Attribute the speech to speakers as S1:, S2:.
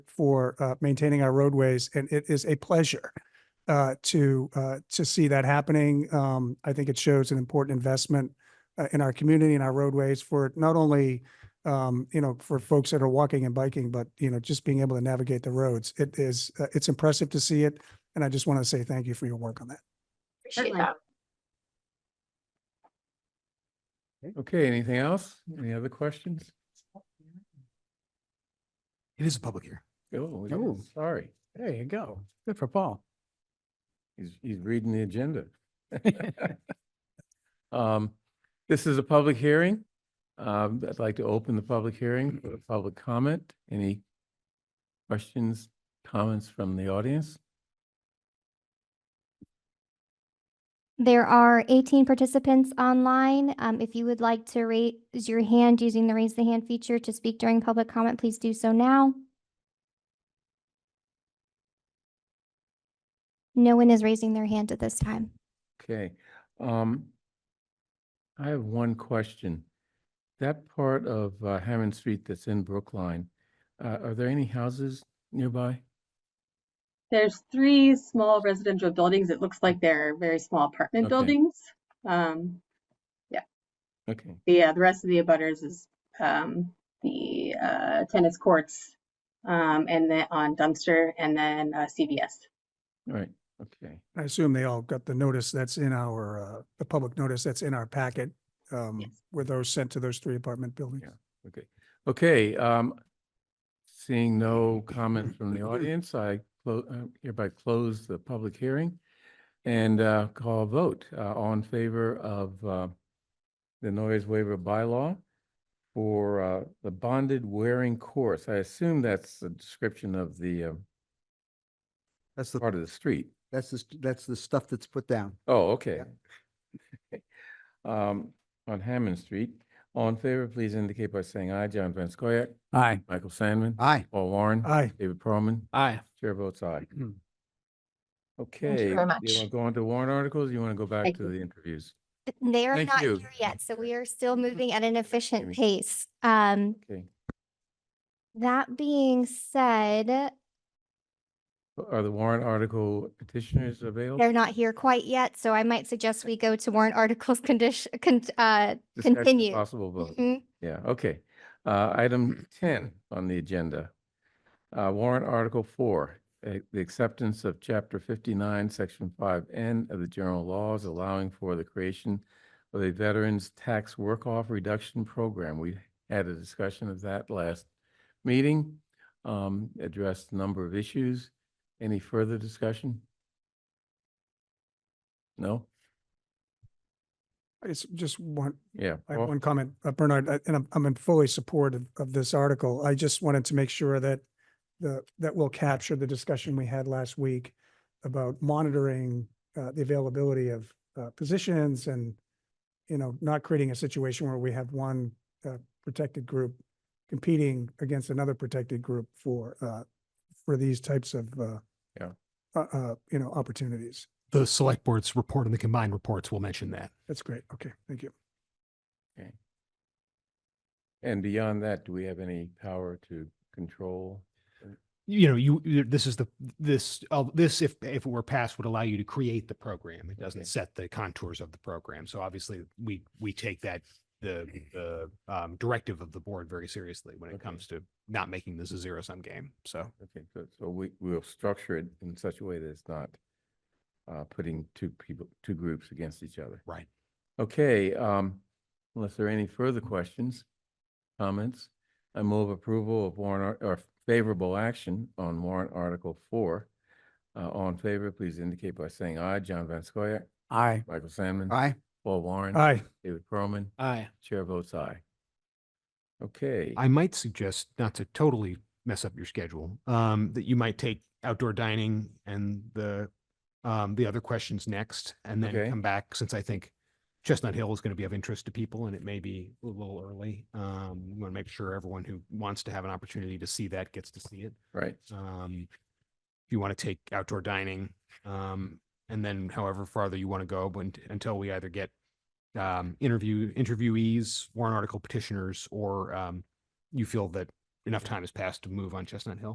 S1: for uh, maintaining our roadways, and it is a pleasure uh, to, uh, to see that happening. Um, I think it shows an important investment uh, in our community and our roadways for not only, um, you know, for folks that are walking and biking, but, you know, just being able to navigate the roads. It is, uh, it's impressive to see it, and I just want to say thank you for your work on that.
S2: Appreciate
S3: Certainly.
S2: that.
S4: Okay, anything else? Any other questions?
S5: It is a public hearing.
S4: Oh, it
S5: Oh.
S4: is. sorry.
S5: There you go. Good for Paul.
S4: He's, he's reading the agenda. Um, this is a public hearing. Um, I'd like to open the public hearing for public comment. Any questions, comments from the audience?
S6: There are 18 participants online. Um, If you would like to raise your hand using the raise the hand feature to speak during public comment, please do so now. No one is raising their hand at this time.
S4: Okay, um, I have one question. That part of uh, Hammond Street that's in Brookline, uh, are there any houses nearby?
S7: There's three small residential buildings. It looks like they're very small apartment
S4: Okay.
S7: buildings. Um,
S4: Okay,
S7: the, uh, the rest of the abutters is, um, the, uh, tennis courts, um, and then on dumpster and then, uh, CVS.
S4: all right, okay.
S1: I assume they all got the notice that's in our, uh, the public notice that's in our packet. Um,
S7: Yes.
S1: were those sent to those three apartment buildings?
S4: Yeah. Okay, okay, um, seeing no comments from the audience, I clo- uh, hereby close the public hearing and, uh, call a vote, uh, all in favor of, uh, the noise waiver bylaw for, uh, the bonded wearing course. I assume that's the description of the, uh,
S5: That's the,
S4: part of the street.
S5: that's the, st- that's the stuff that's put down.
S4: Oh, okay. Um, on Hammond Street, all in favor, please indicate by saying aye. John Van Scoyac,
S5: Aye.
S4: Michael Sandman,
S5: Aye.
S4: Paul Warren.
S1: Aye,
S4: David Perlman,
S5: Aye.
S4: chair votes aye.
S5: Mm.
S4: Okay.
S2: very
S4: You
S2: much.
S4: want to go on to warrant articles? You want to go back
S7: Thank
S4: to
S7: you.
S4: the interviews?
S6: Th- They are
S4: Thank
S6: not
S4: you.
S6: here yet, so we are still moving at an efficient
S4: Amy.
S6: pace. Um,
S4: Okay.
S6: That being said,
S4: Oh. Are the warrant article petitioners
S6: they're
S4: available?
S6: not here quite yet, so I might suggest we go to warrant articles condition, con- uh,
S4: Discussion,
S6: continue.
S4: Possible vote.
S6: Mhm.
S4: Yeah, okay. Uh, item ten on the agenda. Uh, warrant article four, uh, the acceptance of chapter fifty-nine, section five N of the general laws allowing for the creation of a veterans tax work-off reduction program. We had a discussion of that last meeting, um, addressed a number of issues. Any further discussion? No?
S1: I just- just one,
S4: Yeah.
S1: I have
S4: Paul?
S1: one comment, uh, Bernard, I- and I'm, I'm in fully support of, of this article. I just wanted to make sure that the, that will capture the discussion we had last week about monitoring, uh, the availability of, uh, positions and, you know, not creating a situation where we have one, uh, protected group competing against another protected group for, uh, for these types of, uh,
S4: Yeah.
S1: uh, uh, you know, opportunities.
S8: the select board's report and the combined reports will mention that.
S1: That's great. Okay, thank you.
S4: And beyond that, do we have any power to control?
S8: You know, you, you- this is the, this, uh, this, if, if it were passed, would allow you to create the program. It
S4: Okay.
S8: doesn't set the contours of the program. So obviously, we, we take that, the, the um, directive of the board very seriously when it
S4: Okay.
S8: comes to not making this a zero sum game. So
S4: Okay, good. So we, we'll structure it in such a way that it's not uh, putting two people, two groups against each other.
S8: Right.
S4: Okay, um, unless there are any further questions, comments, I move approval of warrant ar- or favorable action on warrant article four. Uh, all in favor, please indicate by saying aye. John Van Scoyac,
S5: Aye.
S4: Michael Sandman.
S5: Aye.
S4: Paul Warren.
S1: Aye.
S4: David Perlman,
S5: Aye.
S4: chair votes aye. Okay.
S8: I might suggest not to totally mess up your schedule, um, that you might take outdoor dining and the, um, the other questions next and
S4: Okay.
S8: then come back, since I think Chestnut Hill is going to be of interest to people and it may be a little early. Um, we want to make sure everyone who wants to have an opportunity to see that gets to see it.
S4: Right.
S8: Um, if you want to take outdoor dining, um, and then however farther you want to go, but until we either get um, interview interviewees, warrant article petitioners, or um, you feel that enough time has passed to move on Chestnut Hill.